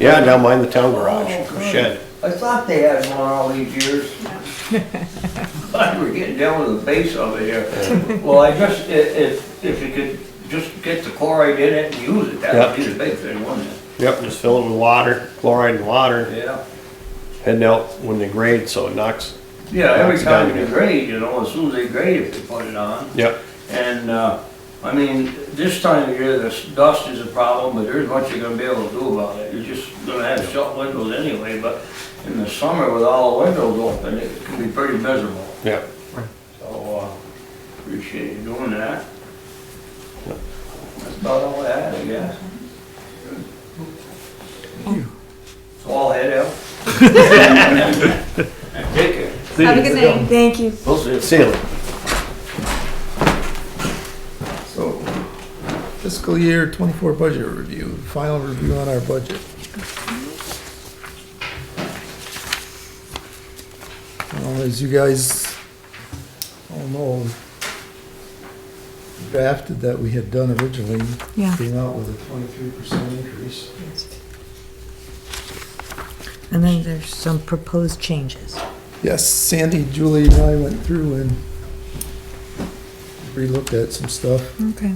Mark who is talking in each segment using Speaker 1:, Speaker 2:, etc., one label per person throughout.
Speaker 1: Yeah, down behind the town garage,
Speaker 2: Oh, good.
Speaker 1: shed.
Speaker 2: I thought they had one all these years. God, we're getting down to the base of it here. Well, I just, i- if, if you could just get the chloride in it and use it, that would be the big thing, wouldn't it?
Speaker 1: Yep, just fill it with water, chloride and water,
Speaker 2: Yeah.
Speaker 1: heading out when they grade, so it knocks.
Speaker 2: Yeah, every
Speaker 1: Knocks it down
Speaker 2: time you
Speaker 1: again.
Speaker 2: grade, you know, as soon as they grade it, they put it on.
Speaker 1: Yep,
Speaker 2: And, uh, I mean, this time of year, the s- dust is a problem, but there's much you're gonna be able to do about it. You're just gonna have shut windows anyway, but in the summer with all the windows open, it can be pretty miserable.
Speaker 1: yep.
Speaker 2: So, uh, appreciate you doing that. That's about all I had, I guess. So I'll head out. Take care.
Speaker 3: Have a good night. Thank you.
Speaker 2: We'll see.
Speaker 1: See you.
Speaker 4: So fiscal year twenty-four budget review, final review on our budget. Uh, As you guys all know, drafted that we had done originally
Speaker 3: Yeah.
Speaker 4: came out with a twenty-three percent increase.
Speaker 5: And then there's some proposed changes.
Speaker 4: Yes, Sandy, Julie and I went through and relooked at some stuff.
Speaker 3: Okay.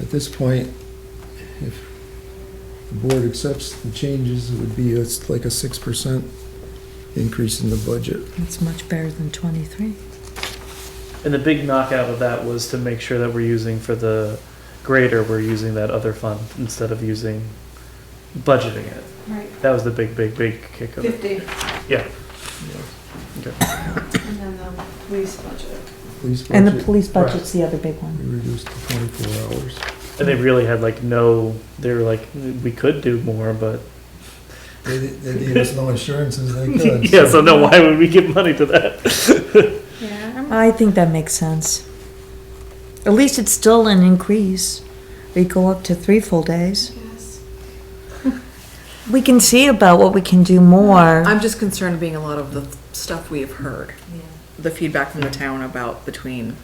Speaker 4: At this point, if the board accepts the changes, it would be, it's like a six percent increase in the budget.
Speaker 5: That's much better than 23.
Speaker 6: And the big knockout of that was to make sure that we're using for the grader, we're using that other fund instead of using budgeting it.
Speaker 3: Right.
Speaker 6: That was the big, big, big kick of it.
Speaker 3: Fifty,
Speaker 6: Yeah.
Speaker 3: and then the police budget.
Speaker 4: Police
Speaker 5: And the
Speaker 4: budget,
Speaker 5: police budget's the other big one.
Speaker 4: we reduced to twenty-four hours.
Speaker 6: And they really had like no, they were like, we could do more, but
Speaker 4: They, they gave us no assurances they could.
Speaker 6: yeah, so no, why would we give money to that?
Speaker 3: Yeah.
Speaker 5: I think that makes sense. At least it's still an increase. We go up to three full days.
Speaker 3: Yes.
Speaker 5: We can see about what we can do more.
Speaker 7: I'm just concerned being a lot of the stuff we have heard, the feedback from the town about between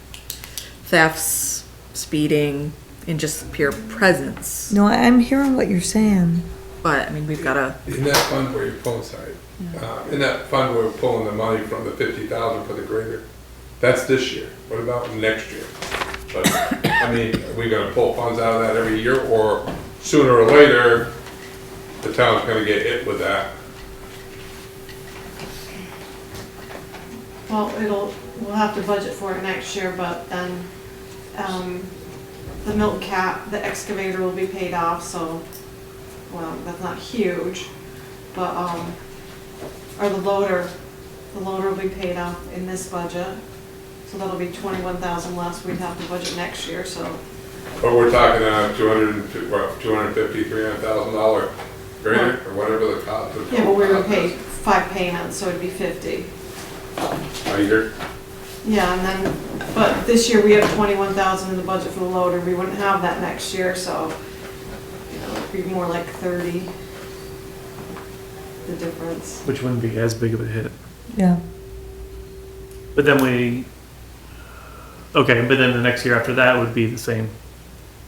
Speaker 7: thefts, speeding, and just pure presence.
Speaker 5: No, I'm hearing what you're saying.
Speaker 7: But I mean, we've got to.
Speaker 8: In that fund where you're pulling, sorry, Uh, in that fund where we're pulling the money from the fifty thousand for the grader, that's this year. What about next year? But, I mean, are we gonna pull funds out of that every year, or sooner or later, the town's gonna get hit with that?
Speaker 9: Well, it'll, we'll have to budget for it next year, but then, um, the milk cap, the excavator will be paid off, so, well, that's not huge, but, um, or the loader, the loader will be paid off in this budget, so that'll be twenty-one thousand less we'd have to budget next year, so.
Speaker 8: But we're talking a two hundred and, fif- what, two hundred and fifty, three hundred thousand dollar grader, or whatever the cost of.
Speaker 9: Yeah, but we were paid five payments, so it'd be fifty.
Speaker 8: A year,
Speaker 9: Yeah, and then, but this year we have twenty-one thousand in the budget for the loader, we wouldn't have that next year, so, you know, it'd be more like thirty, the difference.
Speaker 6: Which wouldn't be as big of a hit.
Speaker 5: Yeah.
Speaker 6: But then we, okay, but then the next year after that would be the same,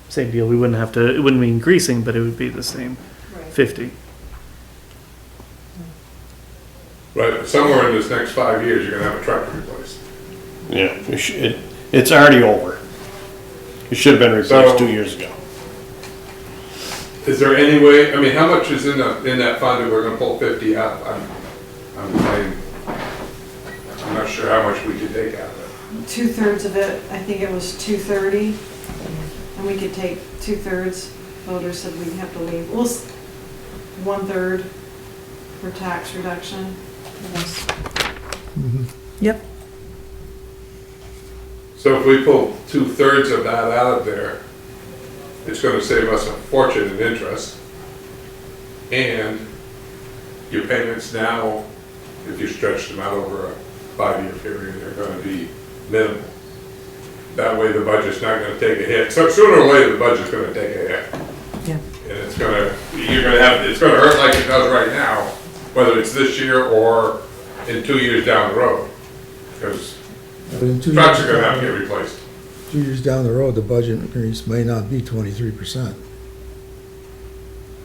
Speaker 6: same deal. We wouldn't have to, it wouldn't be increasing, but it would be the same
Speaker 9: Right.
Speaker 6: fifty.
Speaker 8: but somewhere in this next five years, you're gonna have a tractor replaced.
Speaker 1: Yeah, it sh- it, it's already over. It should have been replaced two years ago.
Speaker 8: Is there any way, I mean, how much is in the, in that fund that we're gonna pull fifty out? I'm, I'm, I'm- I'm not sure how much we could take out of
Speaker 9: Two-thirds of it, I think it was two thirty, and we could take two-thirds, voters said we'd have to leave, well, s- one-third for tax reduction.
Speaker 4: Mhm.
Speaker 5: Yep.
Speaker 8: it. So if we pull two-thirds of that out of there, it's gonna save us a fortune in interest. And your payments now, if you stretch them out over a five-year period, are gonna be minimal. That way the budget's not gonna take a hit. So sooner or later, the budget's gonna take a hit.
Speaker 5: Yeah.
Speaker 8: And it's gonna, you're gonna have, it's gonna hurt like it does right now, whether it's this year or in two years down the road. Because
Speaker 4: But in two
Speaker 8: trucks
Speaker 4: years-
Speaker 8: are gonna have to get replaced.
Speaker 4: Two years down the road, the budget increase may not be twenty-three percent.